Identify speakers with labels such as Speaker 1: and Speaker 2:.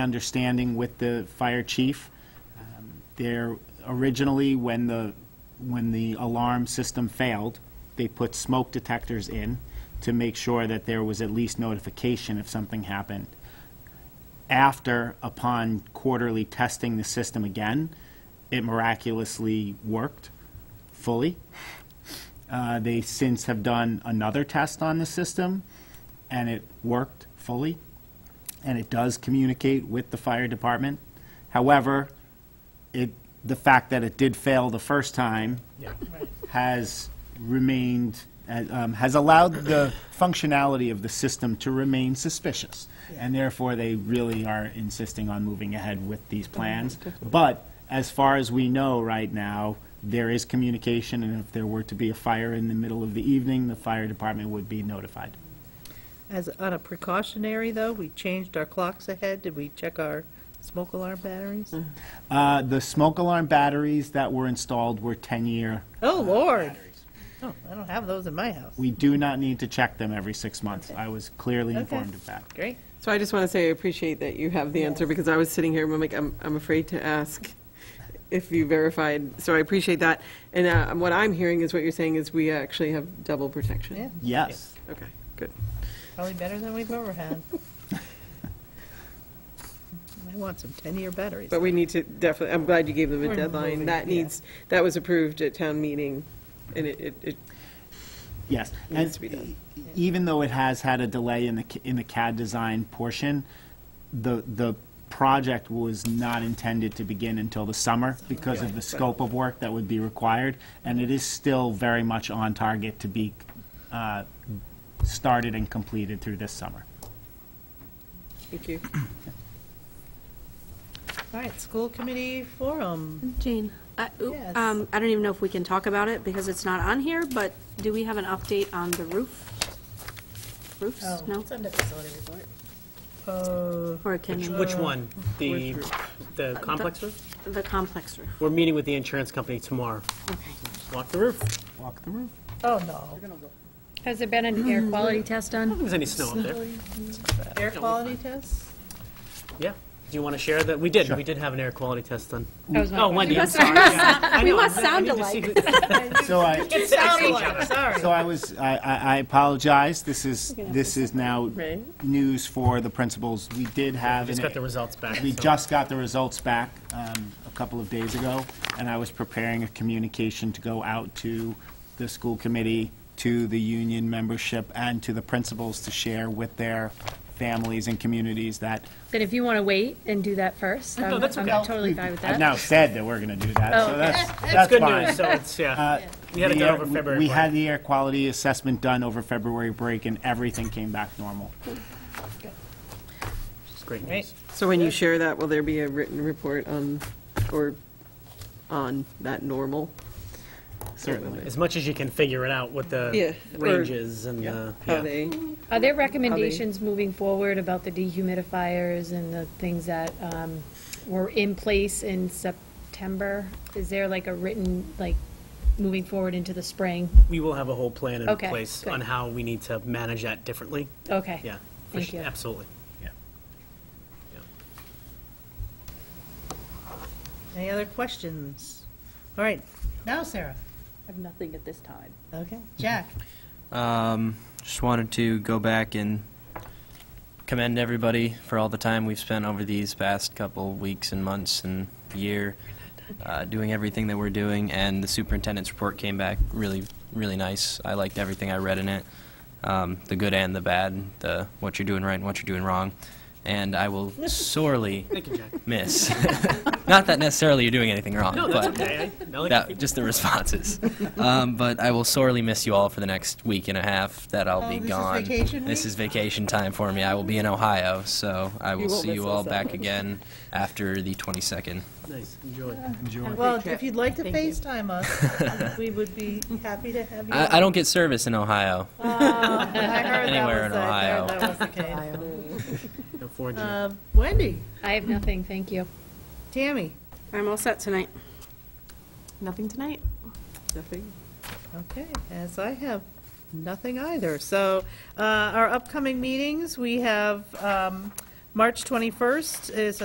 Speaker 1: understanding with the fire chief. Um, There, originally, when the, when the alarm system failed, they put smoke detectors in to make sure that there was at least notification if something happened. After, upon quarterly testing the system again, it miraculously worked fully. Uh, They since have done another test on the system, and it worked fully and it does communicate with the fire department. However, it, the fact that it did fail the first time has remained, uh, um, has allowed the functionality of the system to remain suspicious. And therefore, they really are insisting on moving ahead with these plans. But as far as we know right now, there is communication, and if there were to be a fire in the middle of the evening, the fire department would be notified.
Speaker 2: As, on a precautionary, though, we changed our clocks ahead. Did we check our smoke alarm batteries?
Speaker 1: Uh, The smoke alarm batteries that were installed were 10-year.
Speaker 2: Oh, Lord. Oh, I don't have those in my house.
Speaker 1: We do not need to check them every six months. I was clearly
Speaker 2: Okay.
Speaker 1: informed of that.
Speaker 2: Great.
Speaker 3: So I just want to say I appreciate that you have the answer, because I was sitting here, and I'm like, I'm, I'm afraid to ask if you verified, so I appreciate that. And uh, what I'm hearing is what you're saying is we actually have double protection.
Speaker 2: Yeah,
Speaker 1: Yes.
Speaker 3: Okay, good.
Speaker 2: probably better than we've ever had. I want some 10-year batteries.
Speaker 3: But we need to definitely, I'm glad you gave them a
Speaker 2: We're
Speaker 3: deadline.
Speaker 2: moving,
Speaker 3: That
Speaker 2: yeah.
Speaker 3: needs, that was approved at town meeting, and it, it- it,
Speaker 1: Yes.
Speaker 3: Needs
Speaker 1: And
Speaker 3: to be done.
Speaker 1: e- Even though it has had a delay in the, c- in the CAD design portion, the, the project was not intended to begin until the summer because of the scope of work that would be required, and it is still very much on target to be uh, started and completed through this summer.
Speaker 3: thank you.
Speaker 2: All right, school committee forum.
Speaker 4: Jane, I oop,
Speaker 2: Yes.
Speaker 4: um, I don't even know if we can talk about it because it's not on here, but do we have an update on the roof? Roofs?
Speaker 2: Oh,
Speaker 4: No?
Speaker 5: It's under facility report.
Speaker 2: Uh,
Speaker 4: Or can
Speaker 6: Which-
Speaker 4: we?
Speaker 6: Which one? The, the complex roof?
Speaker 4: The complex roof.
Speaker 6: We're meeting with the insurance company tomorrow.
Speaker 4: Okay.
Speaker 6: Walk the roof. I don't
Speaker 1: Walk the roof.
Speaker 2: Oh, no.
Speaker 5: Has there been an air quality test done?
Speaker 6: think there's any snow up there.
Speaker 2: Air quality tests?
Speaker 6: Yeah. Do you want to share that? We did, we did have an air quality test done.
Speaker 5: That was my
Speaker 6: Oh,
Speaker 5: question.
Speaker 6: Wendy, I'm sorry. I
Speaker 4: We
Speaker 6: know,
Speaker 4: must
Speaker 6: I- I need
Speaker 4: sound
Speaker 6: to see
Speaker 4: alike.
Speaker 6: who-
Speaker 1: So I,
Speaker 2: Sorry.
Speaker 1: So I was, I, I I apologize, this is, this is now news for the principals. We did have.
Speaker 6: Just
Speaker 1: an- e-
Speaker 6: got the results back.
Speaker 1: We
Speaker 6: so-
Speaker 1: just got the results back um, a couple of days ago, and I was preparing a communication to go out to the school committee, to the union membership, and to the principals to share with their families and communities that.
Speaker 5: Then if you want to wait and do that first, I'm
Speaker 6: that's
Speaker 5: I'm
Speaker 6: okay.
Speaker 5: totally fine with
Speaker 1: I've
Speaker 5: that. Oh.
Speaker 1: now said that we're going to do that, so
Speaker 5: okay.
Speaker 1: that's,
Speaker 6: That's
Speaker 1: that's
Speaker 6: good
Speaker 1: fine.
Speaker 6: news, so it's, yeah. We had it
Speaker 1: The
Speaker 6: done
Speaker 1: air-
Speaker 6: over
Speaker 1: we-
Speaker 6: February.
Speaker 1: We
Speaker 6: break.
Speaker 1: had the air quality assessment done over February break, and everything came back normal.
Speaker 6: It's great
Speaker 2: Great.
Speaker 6: news.
Speaker 3: So when you share that, will there be a written report on, or on that normal?
Speaker 1: Certainly.
Speaker 6: As much as you can figure it out, what the
Speaker 3: Yeah, or-
Speaker 6: ranges and the.
Speaker 3: How they,
Speaker 5: Are there recommendations moving forward about the dehumidifiers and the things that um, were in place in September? Is there like a written, like, moving forward into the spring?
Speaker 6: We will have a whole plan in
Speaker 5: Okay,
Speaker 6: place
Speaker 5: good.
Speaker 6: on how we need to manage that differently.
Speaker 5: Okay.
Speaker 6: Yeah. for
Speaker 5: Thank
Speaker 6: su-
Speaker 5: you.
Speaker 6: Absolutely.
Speaker 2: Any other questions? All right, now Sarah.
Speaker 4: have nothing at this time.
Speaker 2: Okay, Jack.
Speaker 7: Um, just wanted to go back and commend everybody for all the time we've spent over these past couple weeks and months and year uh, doing everything that we're doing. And the superintendent's report came back really, really nice. I liked everything I read in it, um, the good and the bad, the what you're doing right and what you're doing wrong. And I will sorely
Speaker 6: Thank you, Jack.
Speaker 7: miss. Not that necessarily you're doing anything wrong,
Speaker 6: No,
Speaker 7: but
Speaker 6: that's okay. I- I like your
Speaker 7: that, just the responses. um, but I will sorely miss you all for the next week and a half that I'll
Speaker 2: Oh,
Speaker 7: be
Speaker 2: this is
Speaker 7: gone.
Speaker 2: vacation
Speaker 7: this
Speaker 2: week?
Speaker 7: is vacation time for me. I will be in Ohio, so I will
Speaker 3: won't
Speaker 7: see you
Speaker 3: miss
Speaker 7: all
Speaker 3: us that
Speaker 7: back
Speaker 3: much.
Speaker 7: again after the 22nd.
Speaker 6: Nice, enjoy.
Speaker 2: Well, if you'd like to
Speaker 3: Thank you.
Speaker 2: FaceTime us, we would be happy to have you.
Speaker 7: I, I don't get service in Ohio.
Speaker 2: I heard that
Speaker 7: anywhere
Speaker 2: was
Speaker 7: in
Speaker 2: the- I heard
Speaker 7: Ohio.
Speaker 2: that was the case.
Speaker 6: No, 4G.
Speaker 2: Um, Wendy,
Speaker 5: I have nothing, thank you.
Speaker 2: Tammy,
Speaker 4: I'm all set tonight.
Speaker 3: nothing tonight? Nothing?
Speaker 2: okay, as I have nothing either. So uh, our upcoming meetings, we have um, March 21st is